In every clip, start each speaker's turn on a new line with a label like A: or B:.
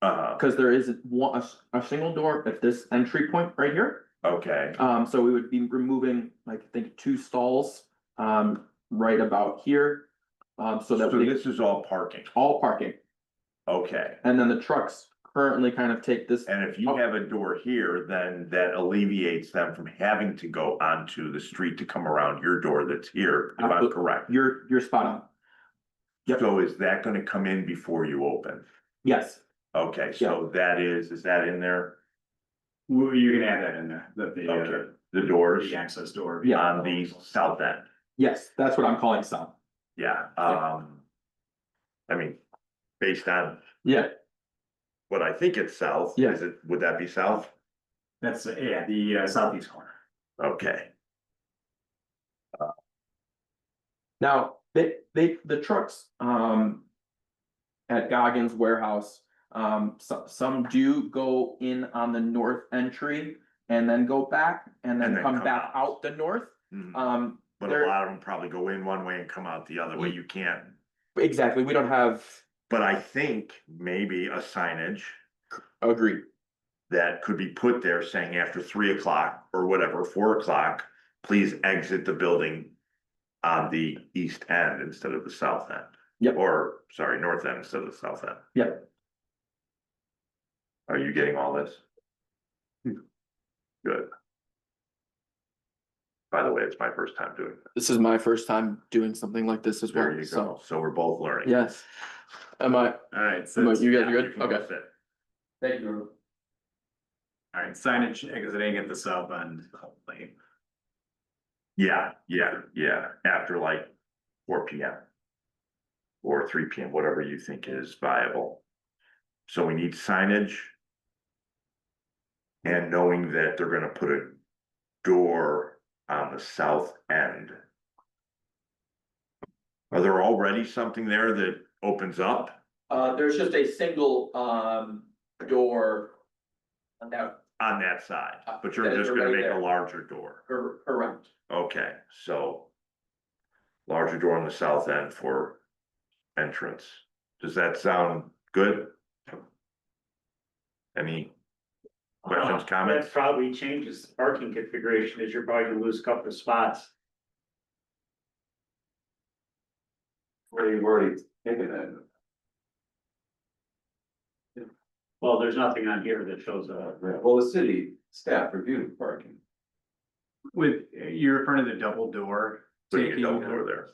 A: Uh,
B: Cause there is one, a, s- a single door at this entry point right here.
A: okay,
B: Um, so we would be removing, like, I think, two stalls, um, right about here. Um, so
A: so
B: that we,
A: this is all parking,
B: all parking,
A: okay.
B: and then the trucks currently kind of take this,
A: And if you have a door here, then that alleviates them from having to go onto the street to come around your door that's here, if I'm
B: Absolutely.
A: correct.
B: you're, you're spot on. Yep.
A: So is that gonna come in before you open?
B: Yes,
A: Okay, so that is, is that in there,
C: Well, you can add that in there, that the, uh,
A: Okay. the doors
C: the access door. Um,
B: Yeah.
A: on the south end?
B: yes, that's what I'm calling some.
A: Yeah,
B: Yeah.
A: um. I mean, based on
B: Yeah,
A: what I think it's south,
B: Yeah.
A: is it, would that be south?
C: That's, uh, yeah, the uh, southeast corner.
A: Okay,
B: now, they, they, the trucks, um. At Goggins warehouse, um, some, some do go in on the north entry and then go back and then come back out the north.
A: Mm,
B: Um,
A: but
B: there- Mm.
A: a lot of them probably go in one way and come out the other way, you can't.
B: Exactly, we don't have,
A: But I think maybe a signage
B: agreed,
A: that could be put there saying after three o'clock or whatever, four o'clock, please exit the building. On the east end instead of the south end.
B: Yep.
A: Or, sorry, north end instead of the south end.
B: Yep.
A: Are you getting all this?
B: Hmm.
A: Good. By the way, it's my first time doing this.
B: this is my first time doing something like this as
A: There
B: well,
A: you
B: so,
A: go. So we're both learning.
B: yes. Am I,
C: All right, so,
B: am I,
C: all
B: you guys are
A: You
B: good,
A: can
B: okay.
A: all sit.
B: Thank you.
C: right, signage exiting at the south end. hopefully.
A: Yeah, yeah, yeah, after like four P M. Or three P M, whatever you think is viable. So we need signage. And knowing that they're gonna put a door on the south end. Are there already something there that opens up
B: Uh, there's just a single, um, door. On that,
A: on that side,
B: Uh,
A: but you're
B: that is
A: just gonna
B: already
A: make a
B: there.
A: larger door?
B: cor- correct,
A: Okay, so. Larger door on the south end for entrance. Does that sound good? Any
C: Uh,
A: questions, comments?
D: That probably changes the parking configuration, is you're probably gonna lose a couple of spots.
C: Where you've already taken that.
D: Well, there's nothing on here that shows uh, a.
E: Well, the city staff reviewed parking.
C: With, you're referring to the double door.
A: Putting a
C: taking,
A: double
C: uh,
A: door there.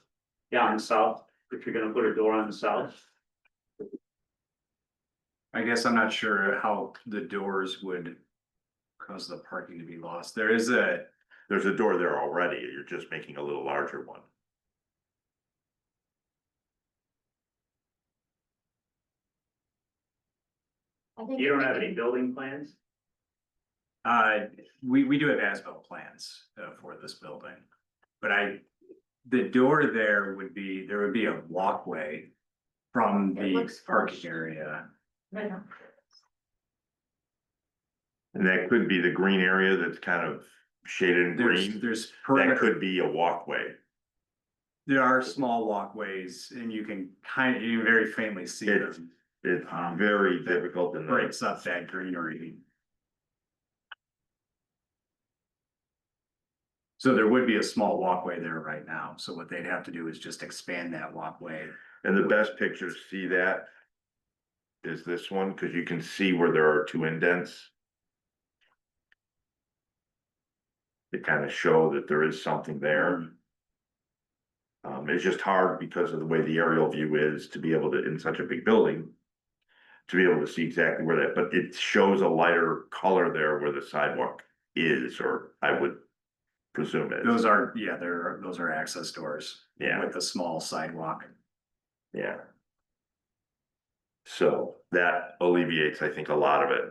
D: Yeah, on the south, if you're gonna put a door on the south,
C: I guess I'm not sure how the doors would cause the parking to be lost. There is a,
A: There's a door there already. You're just making a little larger one.
D: you don't have any building plans?
C: uh, we, we do have asphalt plans uh, for this building. But I, the door there would be, there would be a walkway from
F: It
C: the
F: looks
C: parking
F: flush.
C: area.
F: Right now.
A: And that could be the green area that's kind of shaded in
C: There's,
A: green.
C: there's
A: That
C: perimeter,
A: could be a walkway.
C: there are small walkways and you can kind of, you can very faintly see
A: It-
C: them.
A: It's
C: Um,
A: very difficult in the
C: Breaks up that greenery. So there would be a small walkway there right now, so what they'd have to do is just expand that walkway.
A: And the best picture to see that is this one, because you can see where there are two indents. They kind of show that there is something there. Um, it's just hard because of the way the aerial view is to be able to, in such a big building, to be able to see exactly where that, but it shows a lighter color there where the sidewalk is, or I would presume it.
C: Those are, yeah, there, those are access doors.
A: Yeah.
C: With a small sidewalk.
A: Yeah. So that alleviates, I think, a lot of it.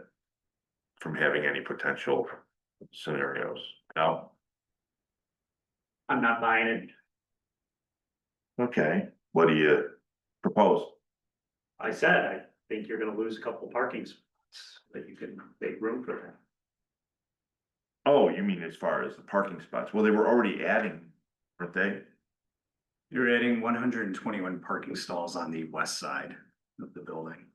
A: From having any potential scenarios. No?
D: I'm not buying it,
A: Okay. What do you propose?
D: I said, I think you're gonna lose a couple of parking spots, that you can make room for that.
A: Oh, you mean as far as the parking spots? Well, they were already adding, weren't they?
C: You're adding one hundred and twenty-one parking stalls on the west side of the building.